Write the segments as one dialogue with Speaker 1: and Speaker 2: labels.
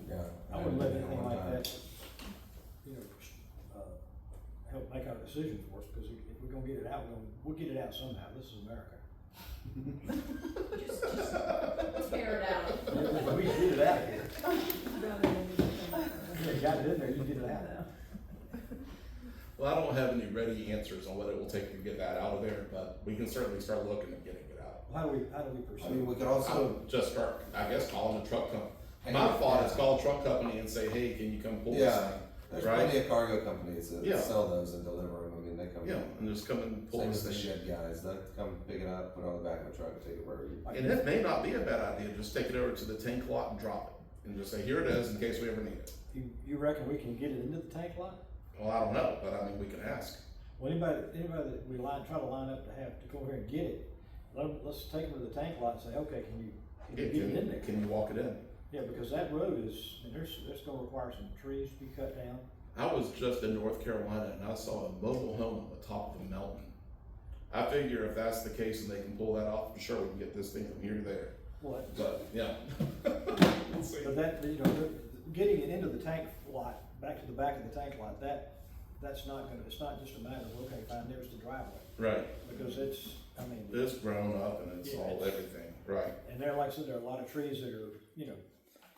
Speaker 1: uh, decision for us, because if we're gonna get it out, we're gonna, we'll get it out somehow, this is America.
Speaker 2: Just, just tear it out.
Speaker 1: We can get it out of here,
Speaker 3: rather than anything.
Speaker 1: If they got it in there, you get it out now.
Speaker 4: Well, I don't have any ready answers on what it will take to get that out of there, but we can certainly start looking at getting it out.
Speaker 1: How do we, how do we
Speaker 5: I mean,
Speaker 1: pursue?
Speaker 5: we could
Speaker 4: I
Speaker 5: also,
Speaker 4: would just start, I guess, calling the truck company.
Speaker 5: Hey,
Speaker 4: My thought
Speaker 5: yeah.
Speaker 4: is call a truck company and say, hey, can you come pull this
Speaker 5: yeah,
Speaker 4: thing?
Speaker 5: there's
Speaker 4: Right.
Speaker 5: plenty of cargo companies that
Speaker 4: Yeah.
Speaker 5: sell those and deliver them, I mean, they come.
Speaker 4: Yeah, and just come and pull
Speaker 5: Same
Speaker 4: this
Speaker 5: as the
Speaker 4: thing.
Speaker 5: shed guys, they come pick it up, put it on the back of a truck, and take it wherever you.
Speaker 4: And that may not be a bad idea, just take it over to the tank lot and drop it, and just say, here it is, in case we ever need it.
Speaker 1: You, you reckon we can get it into the tank lot?
Speaker 4: Well, I don't know, but I mean, we can ask.
Speaker 1: Well, anybody, anybody that we line, try to line up to have, to go over here and get it, let, 'em- let's take them to the tank lot and say, okay, can you, can you
Speaker 4: Yeah,
Speaker 1: get it in
Speaker 4: Can,
Speaker 1: there?
Speaker 4: can you walk it in?
Speaker 1: Yeah, because that road is, and there's, that's gonna require some trees to be cut down.
Speaker 4: I was just in North Carolina and I saw a mobile home on the top of a mountain. I figure if that's the case and they can pull that off, I'm sure we can get this thing from here to there.
Speaker 1: What?
Speaker 4: But yeah. We'll see.
Speaker 1: But that, you know, getting it into the tank lot, back to the back of the tank lot, that, that's not gonna, it's not just a matter of, okay, fine, there's the driveway.
Speaker 4: Right.
Speaker 1: Because it's, I mean,
Speaker 4: It's grown up and it's
Speaker 1: Yeah,
Speaker 4: all
Speaker 1: it's-
Speaker 4: everything. Right.
Speaker 1: and there, like I said, there are a lot of trees that are, you know,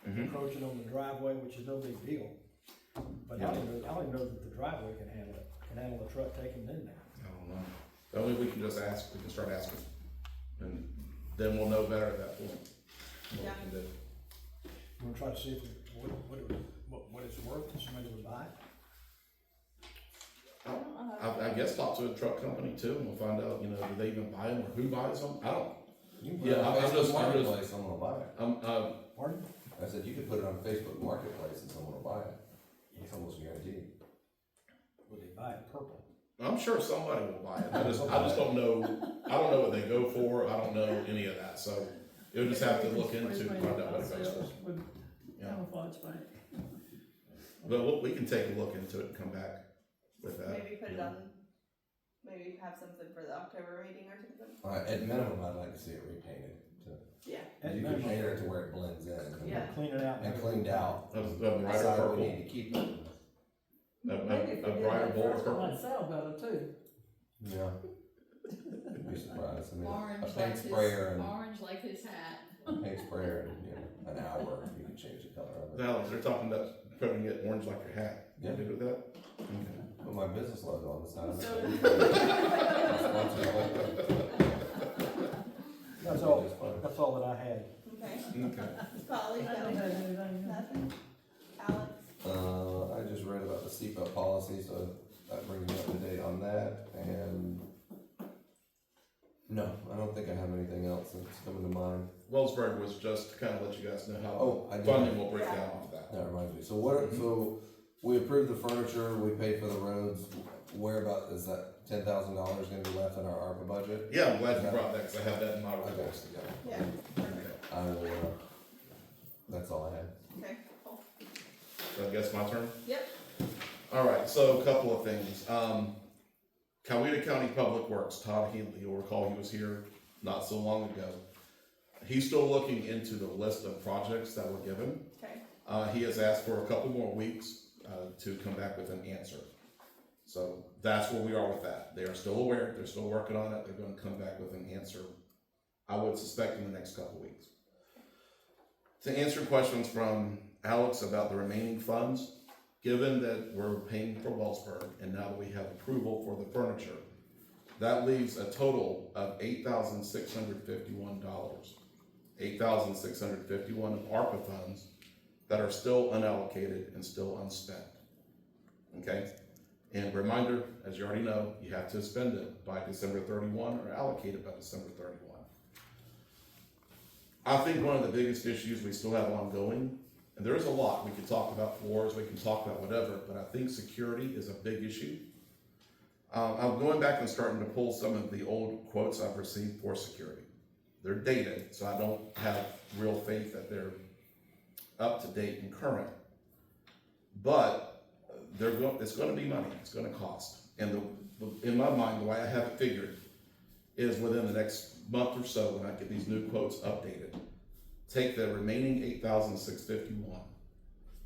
Speaker 4: Mhm.
Speaker 1: encroaching on the driveway, which is no big deal. But I don't know, I don't even know that the driveway can handle it, can handle a truck taking it in there.
Speaker 4: I don't know. The only we can just ask, we can start asking. And then we'll know better at that point. what we
Speaker 2: Yeah.
Speaker 4: can do.
Speaker 1: You wanna try to see if, we- what, what, it- what, what it's worth, if somebody would buy it?
Speaker 4: I, I guess talk to a truck company too and we'll find out, you know, do they even buy them or who buys them? I don't,
Speaker 5: You can put
Speaker 4: Yeah,
Speaker 5: it on
Speaker 4: I- I
Speaker 5: Facebook
Speaker 4: just- I just-
Speaker 5: Marketplace, someone will buy it.
Speaker 4: I'm, uh,
Speaker 1: Pardon?
Speaker 5: I said, you could put it on Facebook Marketplace and someone will buy it. It's almost guaranteed.
Speaker 1: Would they buy it purple?
Speaker 4: I'm sure somebody will buy it. I just, I just don't know. I don't know what they go for. I don't know any of that. So you'll just have to look into and find out what it goes for.
Speaker 3: Would
Speaker 4: Yeah.
Speaker 3: camouflage by it.
Speaker 4: But we'll- we can take a look into it and come back with that.
Speaker 2: Maybe put it on, maybe have something for the October meeting or something?
Speaker 5: Uh, at minimum, I'd like to see it repainted. to-
Speaker 2: Yeah.
Speaker 1: At
Speaker 5: You
Speaker 1: minimum.
Speaker 5: can paint it to where it blends in.
Speaker 2: Yeah.
Speaker 1: Clean it out.
Speaker 5: And cleaned out.
Speaker 4: A, a brighter
Speaker 5: Decide we
Speaker 4: purple,
Speaker 5: need to keep it.
Speaker 4: a,
Speaker 3: Maybe if we
Speaker 4: a, a
Speaker 3: did
Speaker 4: brighter
Speaker 3: that
Speaker 4: bowl of
Speaker 3: first one,
Speaker 4: purple.
Speaker 3: I'd sell better too.
Speaker 5: Yeah. You'd be surprised. I mean,
Speaker 6: Orange
Speaker 5: a
Speaker 6: like
Speaker 5: paint
Speaker 6: his,
Speaker 5: sprayer and
Speaker 6: orange like his hat.
Speaker 5: a paint sprayer and you know, an hour you can change the color of it.
Speaker 4: Now they're talking about putting it orange like your hat. You
Speaker 5: Yeah.
Speaker 4: good with that? Okay.
Speaker 5: Put my business logo on the side of
Speaker 2: So-
Speaker 5: it.
Speaker 1: That's all, that's all that I had.
Speaker 2: Okay,
Speaker 4: Okay.
Speaker 2: Polly,
Speaker 3: I
Speaker 2: no,
Speaker 3: don't have anything.
Speaker 2: nothing, Alex,
Speaker 5: Uh, I just read about the seatbelt policy, so that brings me up to date on that, and no, I don't think I have anything else that's coming to mind.
Speaker 4: Wellsburg was just to kind of let you guys know how
Speaker 5: Oh, I
Speaker 4: funding
Speaker 5: did,
Speaker 4: will break down off that.
Speaker 5: that reminds me, so what, so we approved the furniture, we paid for the roads, where about, is that ten thousand dollars gonna be left in our ARPA budget?
Speaker 4: Yeah, I'm glad you brought that because I have that in my
Speaker 5: Okay,
Speaker 4: reports.
Speaker 5: yeah,
Speaker 2: yeah, perfect,
Speaker 5: I will, uh, that's all I had.
Speaker 2: okay, cool,
Speaker 4: So I guess my turn?
Speaker 2: yep,
Speaker 4: All right, so a couple of things. Um, Coweta County Public Works, Todd Healy, you'll recall he was here not so long ago. He's still looking into the list of projects that were given.
Speaker 2: okay,
Speaker 4: Uh, he has asked for a couple more weeks, uh, to come back with an answer. So that's where we are with that. They are still aware, they're still working on it, they're gonna come back with an answer, I would suspect in the next couple weeks. To answer questions from Alex about the remaining funds, given that we're paying for Wellsburg and now that we have approval for the furniture, that leaves a total of eight thousand six hundred fifty-one dollars. Eight thousand six hundred fifty-one of ARPA funds that are still unallocated and still unspent. Okay? And reminder, as you already know, you have to spend it by December thirty-one or allocate it by December thirty-one. I think one of the biggest issues we still have ongoing, and there is a lot, we can talk about wars, we can talk about whatever, but I think security is a big issue. Uh, I'm going back and starting to pull some of the old quotes I've received for security. They're dated, so I don't have real faith that they're up to date and current. But they're going, it's gonna be money, it's gonna cost. And the, the- in my mind, the way I have it figured is within the next month or so, when I get these new quotes updated, take the remaining eight thousand six fifty-one,